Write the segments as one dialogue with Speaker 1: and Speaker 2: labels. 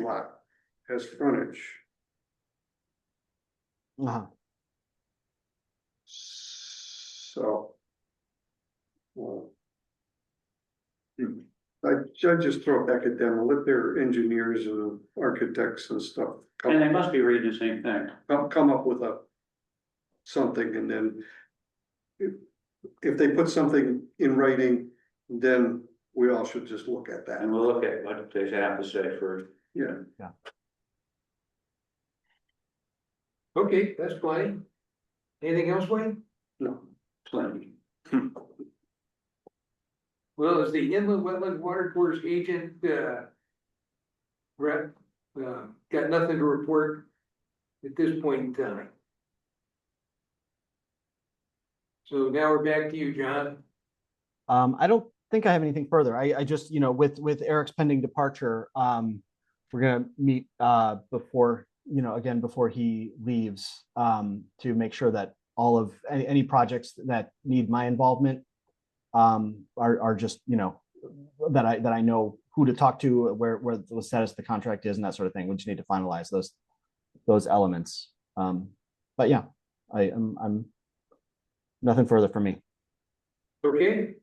Speaker 1: lot has frontage.
Speaker 2: Uh-huh.
Speaker 1: So. Well. hmm, I, I just throw it back at them, let their engineers and architects and stuff
Speaker 3: And
Speaker 1: come,
Speaker 3: they must be reading the same thing.
Speaker 1: come- come up with a. Something and then. If, if they put something in writing, then we all should just look at that.
Speaker 3: And we'll look at what they have to say first.
Speaker 1: Yeah.
Speaker 2: Yeah.
Speaker 3: Okay, that's fine. Anything else, Wayne?
Speaker 1: No,
Speaker 3: Plenty. Well, is the inland wetland water course agent, uh. Brett, uh, got nothing to report at this point in time. So now we're back to you, John.
Speaker 2: Um, I don't think I have anything further. I, I just, you know, with, with Eric's pending departure, um, we're gonna meet, uh, before, you know, again, before he leaves, um, to make sure that all of, any, any projects that need my involvement um, are, are just, you know, that I, that I know who to talk to, where, where the status of the contract is and that sort of thing. We just need to finalize those, those elements. Um, but yeah, I, I'm, I'm, nothing further for me.
Speaker 3: Okay.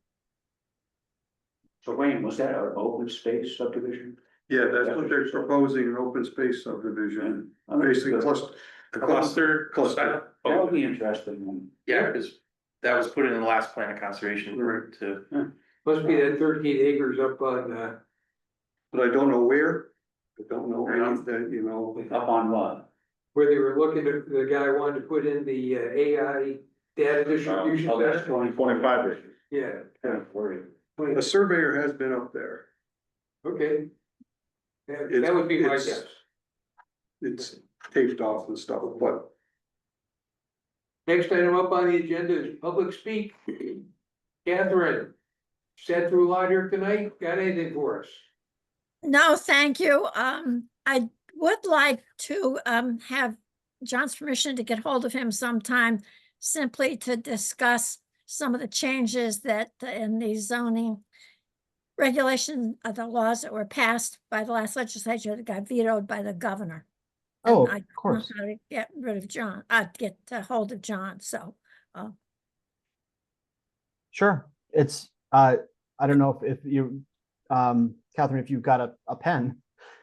Speaker 3: So Wayne, was that an open space subdivision?
Speaker 1: yeah, that's what they're proposing, an open space subdivision, basically cluster.
Speaker 4: A cluster.
Speaker 1: Cluster.
Speaker 3: That would
Speaker 4: Oh,
Speaker 3: be interesting.
Speaker 4: yeah, because that was put in the last plan of conservation
Speaker 1: Right.
Speaker 4: to.
Speaker 3: Must
Speaker 4: be
Speaker 3: that thirteen acres up on, uh.
Speaker 1: But I don't know where, I don't know, any- that, you know,
Speaker 3: Up on what?
Speaker 5: where they were looking, at- the guy wanted to put in the uh, AI data distribution.
Speaker 3: Oh, that's
Speaker 5: center.
Speaker 3: 20
Speaker 4: 25 acres.
Speaker 5: Yeah,
Speaker 3: Kind of worried.
Speaker 1: a surveyor has been up there.
Speaker 5: okay. That
Speaker 1: It's-
Speaker 5: that would be my
Speaker 1: it's-
Speaker 5: guess.
Speaker 1: It's taped off and stuff, but
Speaker 5: Next item up on the agenda is public speak. Catherine, sat through a lot here tonight, got anything for us?
Speaker 6: No, thank you. Um, I would like to, um, have John's permission to get hold of him sometime simply to discuss some of the changes that uh, in the zoning regulation of the laws that were passed by the last legislature that got vetoed by the governor. And
Speaker 2: Oh,
Speaker 6: I
Speaker 2: of
Speaker 6: don't know
Speaker 2: course.
Speaker 6: how to Get rid of John, uh, get uh, hold of John, so,
Speaker 2: Sure. It's, uh, I don't know if, if you, um, Catherine, if you've got a, a pen,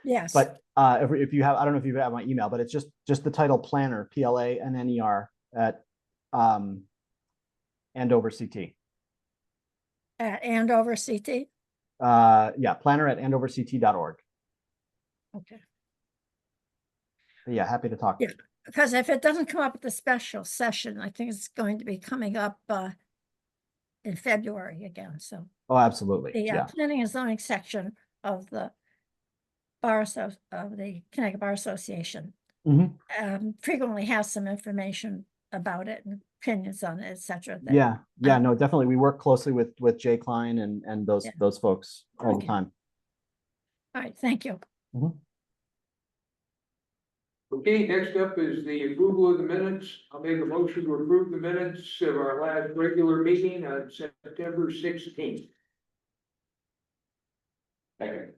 Speaker 6: yes.
Speaker 2: but, uh, if, if you have, I don't know if you have my email, but it's just, just the title planner, P L A N N E R at, um, Andover CT.
Speaker 6: At Andover CT,
Speaker 2: Uh, yeah, planner at andoverct.org.
Speaker 6: okay.
Speaker 2: But Yeah, happy to talk.
Speaker 6: Yeah. Because if it doesn't come up at the special session, I think it's going to be coming up uh in February again, so
Speaker 2: Oh, absolutely.
Speaker 6: the uh,
Speaker 2: Yeah.
Speaker 6: planning and zoning section of the bar asso- of the Connecticut Bar Association
Speaker 2: Mhm.
Speaker 6: um frequently has some information about it and opinions on it, et cetera. that-
Speaker 2: Yeah. Yeah, no, definitely. We work closely with, with Jay Klein and, and those,
Speaker 6: Um, Yeah.
Speaker 2: those folks all the
Speaker 6: Okay.
Speaker 2: time.
Speaker 6: All right, thank you.
Speaker 5: Okay, next up is the approval of the minutes. I'll make a motion to approve the minutes of our last regular meeting on September sixteenth.
Speaker 3: Okay.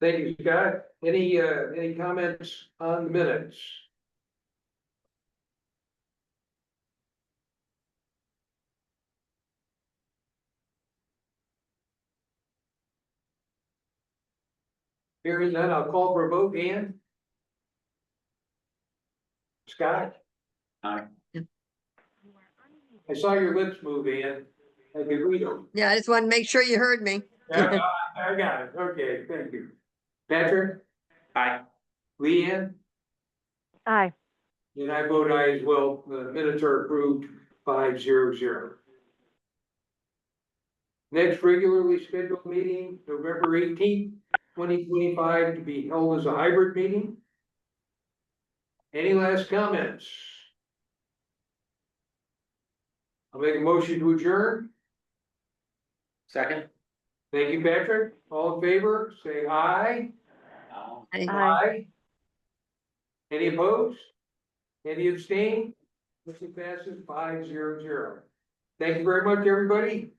Speaker 5: Thank you, Scott. Any, uh, any comments on the minutes? Hearing none, I'll call for a vote. Ann? Scott?
Speaker 3: Aye.
Speaker 5: I saw your lips move, Ann. I could read them.
Speaker 7: Yeah, I just wanted to make sure you heard me.
Speaker 5: Yeah, I I got it. Okay, thank you. Patrick?
Speaker 4: Aye.
Speaker 5: Leanne?
Speaker 7: Aye.
Speaker 5: And I vote aye as well. The minutes are approved five zero zero. Next regularly scheduled meeting, November eighteenth, twenty twenty-five, to be held as a hybrid meeting. Any last comments? I'll make a motion to adjourn.
Speaker 4: Second?
Speaker 5: Thank you, Patrick. All in favor, say aye.
Speaker 3: Uh,
Speaker 7: Aye.
Speaker 5: Aye. Any opposed? Any abstain? Motion passes five zero zero. Thank you very much, everybody.